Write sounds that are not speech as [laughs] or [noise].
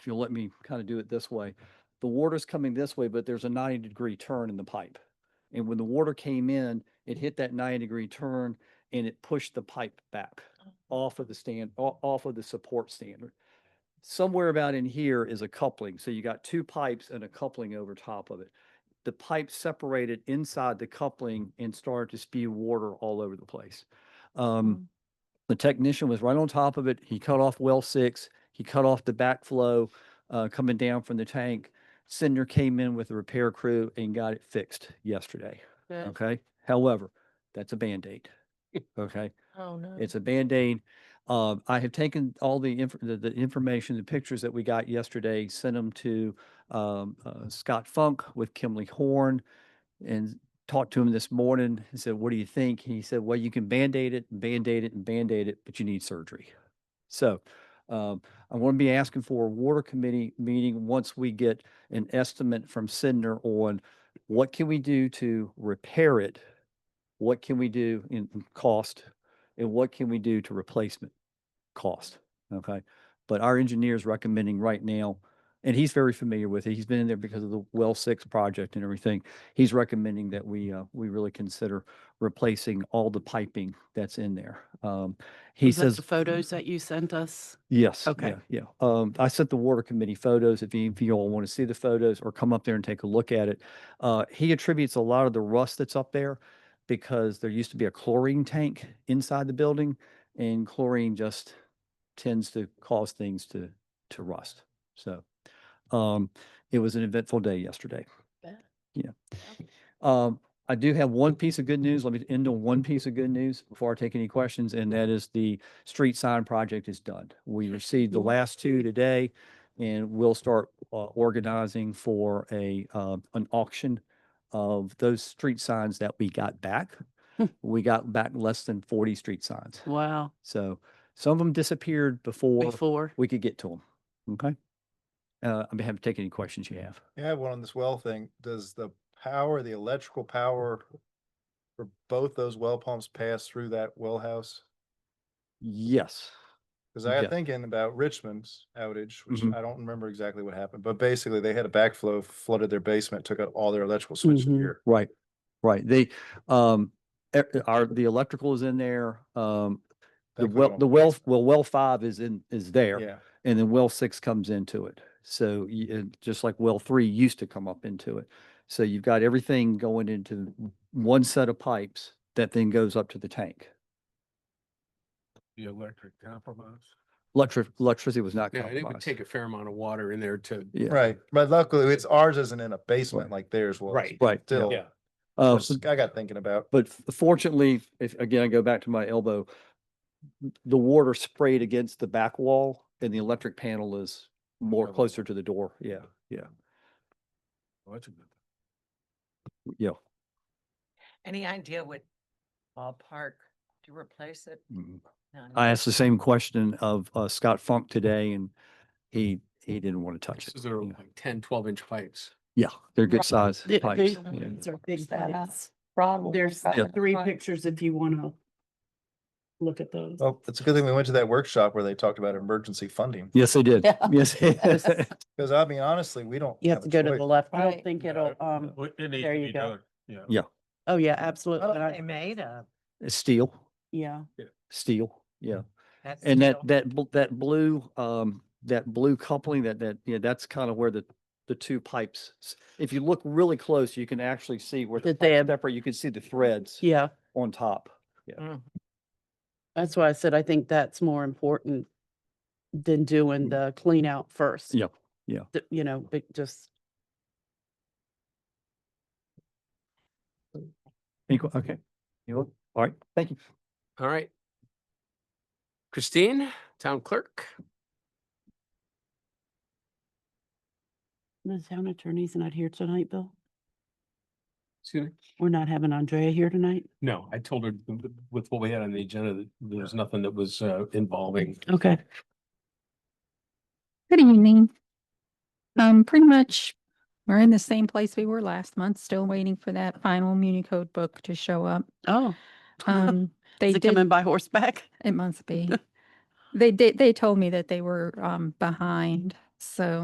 if you'll let me kind of do it this way, the water's coming this way, but there's a ninety degree turn in the pipe. And when the water came in, it hit that ninety degree turn and it pushed the pipe back off of the stand, o- off of the support standard. Somewhere about in here is a coupling, so you got two pipes and a coupling over top of it. The pipe separated inside the coupling and started to spew water all over the place. Um, the technician was right on top of it. He cut off well six. He cut off the backflow uh, coming down from the tank. Sender came in with a repair crew and got it fixed yesterday. Good. Okay. However, that's a Band-Aid. Okay. Oh, no. It's a Band-Aid. Um, I have taken all the inf- the, the information, the pictures that we got yesterday, sent them to, um, uh, Scott Funk with Kimley Horn and talked to him this morning and said, what do you think? He said, well, you can Band-Aid it, Band-Aid it and Band-Aid it, but you need surgery. So, um, I'm going to be asking for a water committee meeting once we get an estimate from Sidner on what can we do to repair it? What can we do in in cost? and what can we do to replacement cost? Okay. But our engineer is recommending right now, and he's very familiar with it. He's been in there because of the well six project and everything. He's recommending that we, uh, we really consider replacing all the piping that's in there. Um, he Was that says. The photos that you sent us. Yes. Okay. Yeah. yeah. Um, I sent the water committee photos if you, if you all want to see the photos or come up there and take a look at it. Uh, he attributes a lot of the rust that's up there because there used to be a chlorine tank inside the building and chlorine just tends to cause things to, to rust. So, um, it was an eventful day yesterday. Bet. Yeah. Um, I do have one piece of good news. Let me end on one piece of good news before I take any questions, and that is the street sign project is done. [laughs] We received the last two today, and we'll start uh, organizing for a, uh, an auction of those street signs that we got back. Hmm. We got back less than forty street signs. Wow. So some of them disappeared before Before. we could get to them. Okay? Uh, I'd be happy to take any questions you have. I have one on this well thing. Does the power, the electrical power for both those well pumps pass through that well house? Yes. Because I Yeah. am thinking about Richmond's outage, which Mhm. I don't remember exactly what happened, but basically they had a backflow, flooded their basement, took out all their electrical switch Mm-hmm. Mhm. gear. Right, right. They, um, e- our, the electrical is in there. Um, the well, the well, well, well five is in, is there. Yeah, And then well six comes into it. So y- and just like well three used to come up into it. So you've got everything going into one set of pipes that then goes up to the tank. the electric compromise. Electric, electricity was not Yeah, and it would compromised. take a fair amount of water in there to. Yeah, right. But luckily it's ours isn't in a basement like theirs was. Right. right. yeah. Still, Yeah. Uh, so just- I got thinking about, But f- fortunately, if, again, I go back to my elbow, n- the water sprayed against the back wall and the electric panel is more Double. closer to the door. Yeah, yeah, Well, that's a good- yeah. Any idea what ballpark to replace it? Mhm. None. I asked the same question of uh, Scott Funk today and he, he didn't want to touch it. These are Yeah. like 10, 12 inch pipes. Yeah, they're good Right. size Th- pipes. these yeah. ones are big Is that pipes. us? Ron will There's look up three front. pictures if you want to look at those. well, it's a good thing we went to that workshop where they talked about emergency funding. Yes, they did. Yeah. Yes. Yes. Because I mean, honestly, we don't. You a have to go to choice. the left. I don't Right. think it'll, um, there you go. Yeah. Yeah. Oh, yeah, absolutely. What And are I- they made of? [laughs] Steel, Yeah. steel, yeah. That's And that, still- that, bl- that blue, um, that blue coupling, that, that, yeah, that's kind of where the, the two pipes. s- If you look really close, you can actually see where the That they pipe have- separate, you can see the threads Yeah. on top. Mm. That's why I said I think that's more important than doing the clean out first. Yep, Mm-hmm. yeah. Th- You know, but just Any que- Okay. You look- All right, thank you. All right. Christine, town clerk. the town attorney's not here tonight, Bill. Excuse me? We're not having Andrea here tonight. No, I told her th- with what we had on the agenda, that there was nothing that was uh, involving. Okay. Good evening. Um, pretty much, we're in the same place we were last month, still waiting for that final Muni code book to show up. Oh, Um, they is it coming did, by horseback? it must be. They did, they told me that they were, um, behind, So